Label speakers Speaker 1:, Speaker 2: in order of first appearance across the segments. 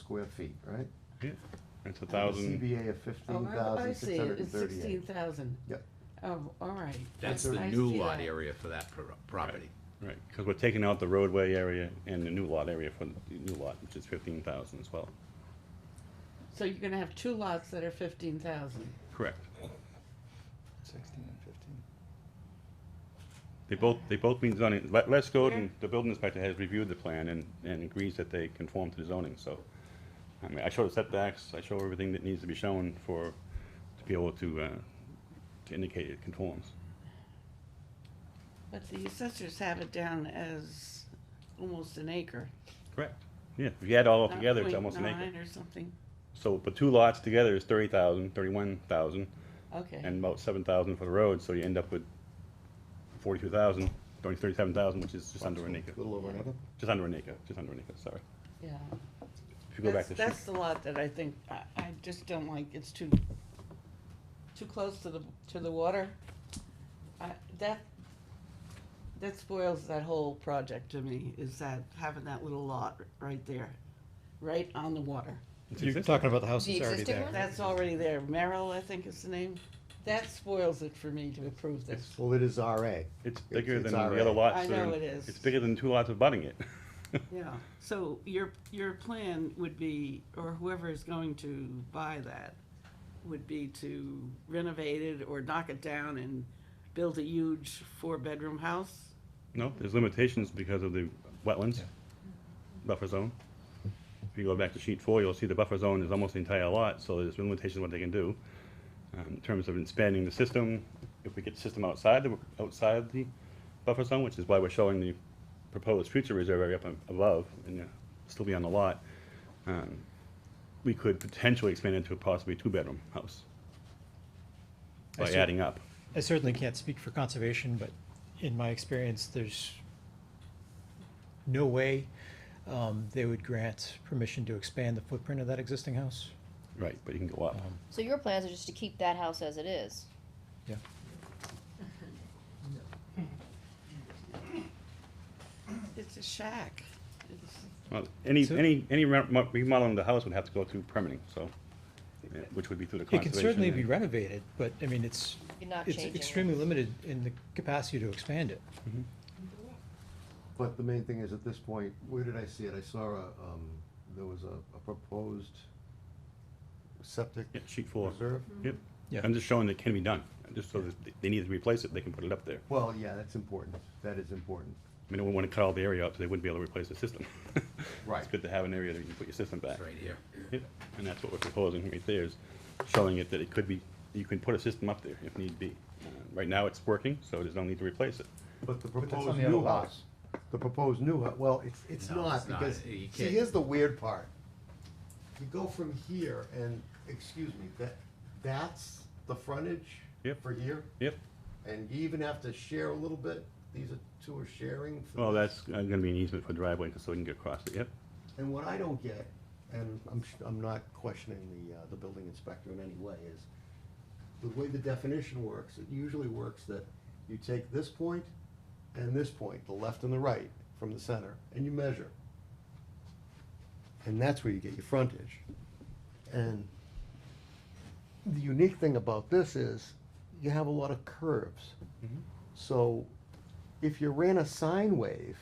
Speaker 1: square feet, right?
Speaker 2: Yeah, It's a
Speaker 1: And the
Speaker 2: thousand,
Speaker 1: CBA of
Speaker 3: Oh,
Speaker 1: fifteen
Speaker 3: I- I
Speaker 1: thousand
Speaker 3: see,
Speaker 1: six
Speaker 3: it
Speaker 1: hundred
Speaker 3: is
Speaker 1: and
Speaker 3: sixteen
Speaker 1: thirty-eight.
Speaker 3: thousand.
Speaker 1: Yep.
Speaker 3: Oh, all right.
Speaker 4: That's the
Speaker 3: I
Speaker 4: new
Speaker 3: see
Speaker 4: lot
Speaker 3: that.
Speaker 4: area for that pro- property.
Speaker 2: right, because we're taking out the roadway area and the new lot area for the new lot, which is fifteen thousand as well.
Speaker 3: So you're gonna have two lots that are fifteen thousand.
Speaker 2: Correct.
Speaker 5: Sixteen and fifteen.
Speaker 2: They both, they both mean zoning. Let, Les Godin, the building inspector, has reviewed the plan and, and agrees that they conform to the zoning, so. I mean, I show the setbacks, I show everything that needs to be shown for, to be able to, uh, to indicate it conforms.
Speaker 3: But the assessors have it down as almost an acre.
Speaker 2: Correct. Yeah, if you add all
Speaker 3: Not
Speaker 2: together, it's
Speaker 3: point
Speaker 2: almost an acre.
Speaker 3: nine Or something,
Speaker 2: So, but two lots together is thirty thousand, thirty-one thousand,
Speaker 3: okay.
Speaker 2: and about seven thousand for the road, so you end up with forty-two thousand, thirty-seven thousand, which is just under an acre,
Speaker 1: Little over an acre.
Speaker 2: just under an acre, just under an acre, sorry.
Speaker 3: Yeah.
Speaker 2: If you go back
Speaker 3: That's-
Speaker 2: to.
Speaker 3: That's the lot that I think, I, I just don't like, it's too, too close to the, to the water. I, that, that spoils that whole project to me, is that having that little lot right there, right on the water.
Speaker 2: It's
Speaker 5: You're
Speaker 2: existing.
Speaker 5: talking about the house
Speaker 6: The
Speaker 5: that's already
Speaker 6: existing
Speaker 5: there.
Speaker 6: one?
Speaker 3: That's already there, Merrill, I think is the name, that spoils it for me to approve this.
Speaker 1: Well, it is RA.
Speaker 2: It's bigger
Speaker 1: it's
Speaker 2: than the
Speaker 1: RA.
Speaker 2: other lots.
Speaker 3: I
Speaker 2: that are
Speaker 3: know
Speaker 2: in-
Speaker 3: it is.
Speaker 2: It's bigger than two lots abutting it.
Speaker 3: Yeah, so your, your plan would be, or whoever is going to buy that, would be to renovate it or knock it down and build a huge four-bedroom house?
Speaker 2: No, there's limitations because of the wetlands, buffer zone. If you go back to sheet four, you'll see the buffer zone is almost the entire lot, so there's limitations what they can do. Um, in terms of expanding the system, if we get the system outside, the outside the buffer zone, which is why we're showing the proposed future reserve area up on- above, and uh, still be on the lot, um, we could potentially expand into a possibly two-bedroom house
Speaker 5: I
Speaker 2: by
Speaker 5: see.
Speaker 2: adding up.
Speaker 5: I certainly can't speak for conservation, but in my experience, there's no way um, they would grant permission to expand the footprint of that existing house.
Speaker 2: Right, but you can go up.
Speaker 5: Um,
Speaker 6: So your plans are just to keep that house as it is?
Speaker 5: Yeah.
Speaker 3: It's a shack. It's-
Speaker 2: Well, any,
Speaker 5: So-
Speaker 2: any, any re- mo- remodeling of the house would have to go through permitting, so, uh, which would be through the
Speaker 5: It can
Speaker 2: conservation.
Speaker 5: certainly be
Speaker 2: and-
Speaker 5: renovated, but I mean, it's,
Speaker 6: You're not
Speaker 5: it's
Speaker 6: changing it.
Speaker 5: extremely limited in the capacity to expand it.
Speaker 1: But the main thing is, at this point, where did I see it? I saw a, um, there was a, a proposed septic
Speaker 2: Yeah, sheet four.
Speaker 1: reserve.
Speaker 2: Yep.
Speaker 5: Yeah.
Speaker 2: I'm just showing that can be done, just so that they need to replace it, they can put it up there.
Speaker 1: Well, yeah, that's important. That is important.
Speaker 2: I mean, we wanna cut all the area out, so they wouldn't be able to replace the system. It's
Speaker 1: Right.
Speaker 2: good to have an area that you can put your system back.
Speaker 4: It's right here.
Speaker 2: Yep, and that's what we're proposing right there, is showing it that it could be, you can put a system up there if need be. Uh, Right now, it's working, so there's no need to replace it.
Speaker 1: But the
Speaker 5: that's on
Speaker 1: proposed
Speaker 5: the other
Speaker 1: new
Speaker 5: lot.
Speaker 1: house, the proposed new, hu- well, it's, it's
Speaker 4: No,
Speaker 1: not,
Speaker 4: it's not.
Speaker 1: because,
Speaker 4: You
Speaker 1: see,
Speaker 4: can't-
Speaker 1: here's the weird part. You go from here and, excuse me, that, that's the frontage
Speaker 2: Yep.
Speaker 1: for here,
Speaker 2: Yep,
Speaker 1: and you even have to share a little bit. These are two are sharing. for
Speaker 2: well,
Speaker 1: this.
Speaker 2: that's uh, gonna be an easement for driveway, so we can get across it, yep.
Speaker 1: And what I don't get, and I'm, sh- I'm not questioning the, uh, the building inspector in any way, is the way the definition works, it usually works that you take this point and this point, the left and the right from the center, and you measure. And that's where you get your frontage. And the unique thing about this is you have a lot of curves. So if you ran a sine wave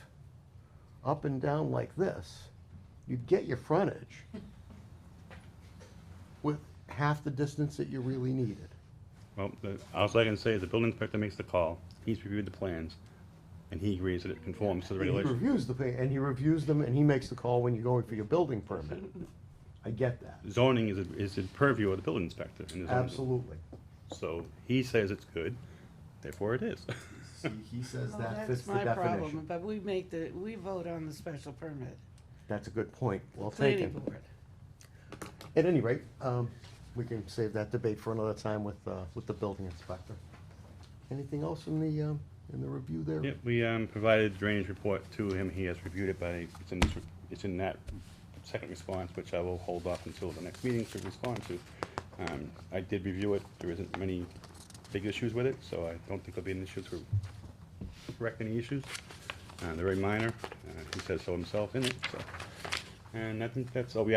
Speaker 1: up and down like this, you'd get your frontage with half the distance that you really needed.
Speaker 2: Well, the, all I can say is the building inspector makes the call, he's reviewed the plans, and he agrees that it conforms to the
Speaker 1: He
Speaker 2: regulation.
Speaker 1: reviews the, thing, and he reviews them, and he makes the call when you're going for your building permit. I get that,
Speaker 2: Zoning is, a- is the purview of the building inspector. in the zoning.
Speaker 1: absolutely.
Speaker 2: So he says it's good, therefore it is.
Speaker 1: See, he says
Speaker 3: Well,
Speaker 1: that fits the
Speaker 3: Oh, That's my problem,
Speaker 1: definition.
Speaker 3: but we make the, we vote on the special permit.
Speaker 1: That's a good point, well
Speaker 3: Planning
Speaker 1: taken.
Speaker 3: board.
Speaker 1: At any rate, um, we can save that debate for another time with, uh, with the building inspector. Anything else in the, um, in the review there?
Speaker 2: Yep, we, um, provided drainage report to him, he has reviewed it, but it's in, this- it's in that second response, which I will hold off until the next meeting to respond to. Um, I did review it, there isn't many big issues with it, so I don't think there'll be an issue to correct any issues. Uh, they're very minor, uh, he says so himself in it, so. And I think that's all we